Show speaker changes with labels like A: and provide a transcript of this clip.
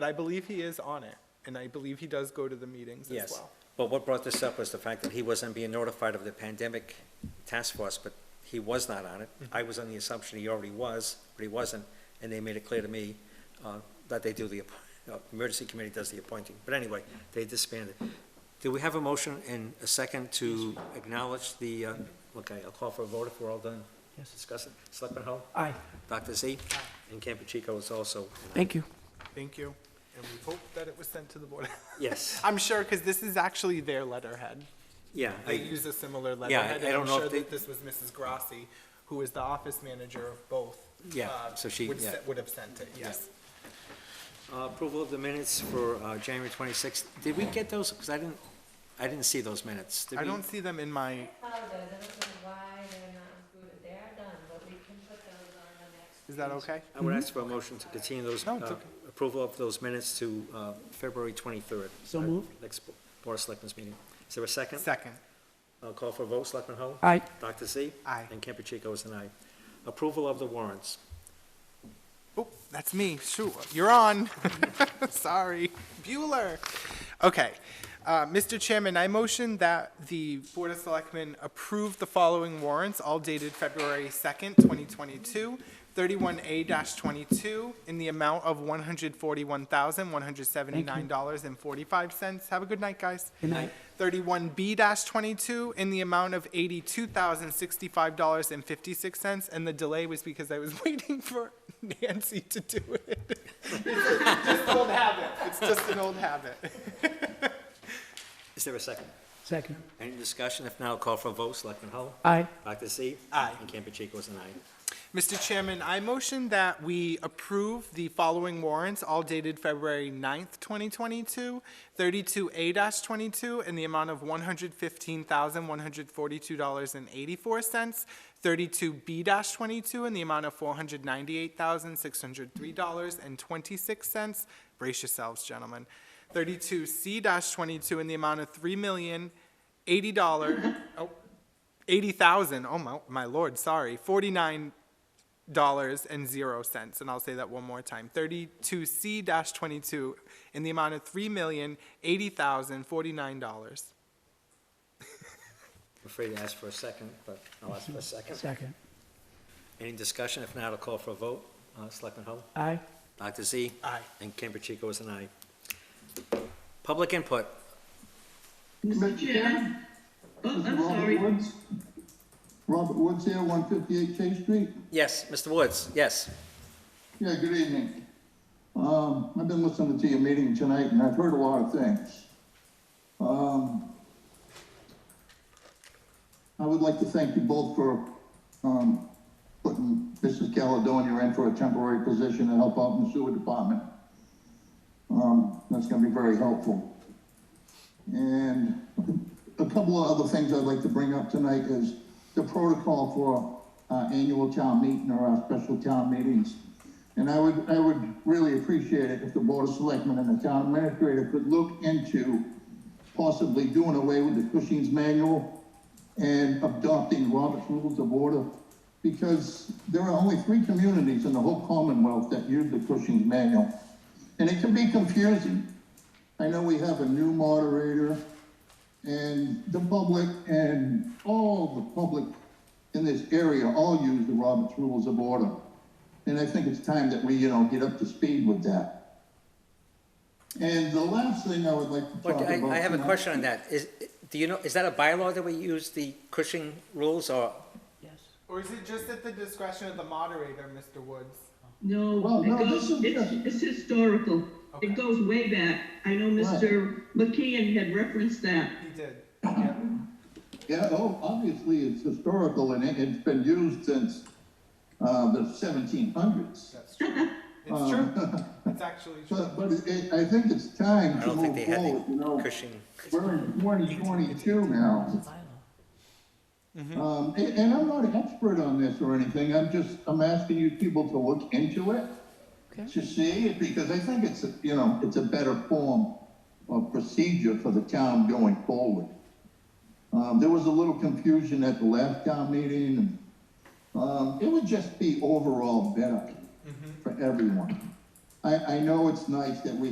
A: But I believe he is on it, and I believe he does go to the meetings as
B: Yes,
A: well.
B: but what brought this up was the fact that he wasn't being notified of the pandemic task force, but he was not on it.
A: Mm-hmm.
B: I was on the assumption he already was, but he wasn't, and they made it clear to me uh, that they do the, app- uh, emergency committee does the appointing. But anyway, they disbanded. Do we have a motion and a second to acknowledge the, uh, okay, I'll call for a vote if we're all done discussing. Selectman Hull?
C: Aye.
B: Dr. Z? And Campuchico is also,
C: Thank you.
A: Thank you, and we hope that it was sent to the board.
B: yes,
A: I'm sure, because this is actually their letterhead.
B: yeah. I-
A: They use a similar letterhead,
B: I
A: and
B: don't
A: I'm
B: know if
A: sure
B: they-
A: that this was Mrs. Grassi, who is the office manager of both.
B: Yeah,
A: uh,
B: so she-
A: would
B: yeah.
A: se- Would have sent it,
B: Yeah.
A: yes.
B: Uh, Approval of the minutes for uh, January 26th. Did we get those? Because I didn't, I didn't see those minutes. Did
A: I
B: we-
A: don't see them in my,
D: apologize, I don't know why they're not included, they are done, but we can put those on the next.
A: is that okay?
B: I would ask for a motion to continue those,
A: Mm-hmm. No, it's
B: uh,
A: okay.
B: approval of those minutes to uh, February 23rd.
C: So
B: our
C: moved.
B: Next Bo- Board of Selectmen's meeting. Is there a second?
A: Second,
B: I'll call for a vote. Selectman Hull?
C: Aye.
B: Dr. Z?
A: Aye.
B: And Campuchico is an aye. Approval of the warrants.
A: oh, that's me, shoot, you're on. Sorry, Bueller. Okay, uh, Mr. Chairman, I motion that the Board of Selectmen approve the following warrants, all dated February second, twenty twenty-two, thirty-one A twenty-two, in the amount of one hundred forty-one thousand, one hundred seventy-nine dollars and forty-five cents. Have a good night, guys.
C: Good night.
A: 31B-22 in the amount of $82,065.56, and the delay was because I was waiting for Nancy to do it. It's an old habit, it's just an old habit.
B: Is there a second?
C: Second.
B: Any discussion? If not, I'll call for a vote. Selectman Hull?
C: Aye.
B: Dr. Z?
A: Aye.
B: And Campuchico is an aye.
A: Mr. Chairman, I motion that we approve the following warrants, all dated February 9th, 2022, 32A-22 in the amount of $115,142.84, 32B-22 in the amount of $498,603.26. Brace yourselves, gentlemen. 32C-22 in the amount of $3,080, oh, 80,000, oh my, my lord, sorry, 49 dollars and zero cents, and I'll say that one more time, thirty-two C dash twenty-two, in the amount of three million, eighty thousand, forty-nine dollars.
B: I'm afraid to ask for a second, but I'll ask for a second.
C: Second.
B: Any discussion? If not, I'll call for a vote. Uh, Selectman Hull?
C: Aye.
B: Dr. Z?
A: Aye.
B: And Campuchico is an aye. Public input.
E: Mr. Chairman? Oh, I'm sorry.
F: Robert Woods here, one fifty-eight Chase Street.
B: Yes, Mr. Woods, yes.
F: Yeah, good evening. Um, I've been listening to your meeting tonight and I've heard a lot of things. Um, I would like to thank you both for, um, putting Mrs. Caledonia in for a temporary position to help out in the sewer department. Um, that's gonna be very helpful. And a couple of other things I'd like to bring up tonight is the protocol for our annual town meeting or our special town meetings. And I would, I would really appreciate it if the Board of Selectmen and the town administrator could look into possibly doing away with the Cushing's manual and adopting Robert's Rules of Order, because there are only three communities in the whole Commonwealth that use the Cushing's manual. And it can be confusing. I know we have a new moderator and the public and all the public in this area all use the Robert's Rules of Order. And I think it's time that we, you know, get up to speed with that. And the last thing I would like to talk
B: But
F: about.
B: I, I have a
F: tonight-
B: question on that. Is, do you know, is that a bylaw that we use, the Cushing rules, or?
C: Yes.
A: Or is it just at the discretion of the moderator, Mr. Woods?
E: No,
F: Well, no,
E: it
F: this
E: goes,
F: is-
E: it's, it's historical.
A: Okay.
E: It goes way back. I know Mr. McKeon had referenced that.
A: He did.
F: Yeah, oh, obviously, it's historical and it, it's been used since, uh, the seventeen hundreds.
A: That's true. It's true. It's actually true.
F: But, but it, I think it's time
B: I
F: to
B: don't think
F: move
B: they had
F: forward, you
B: the
F: know,
B: Cushing.
F: we're in twenty twenty-two now. Um, and, and I'm not an expert on this or anything, I'm just, I'm asking you people to look into it, to see it, because I think it's, a- you know, it's a better form of procedure for the town going forward. Um, there was a little confusion at the last town meeting, and, um, it would just be overall better for everyone. I, I know it's nice that we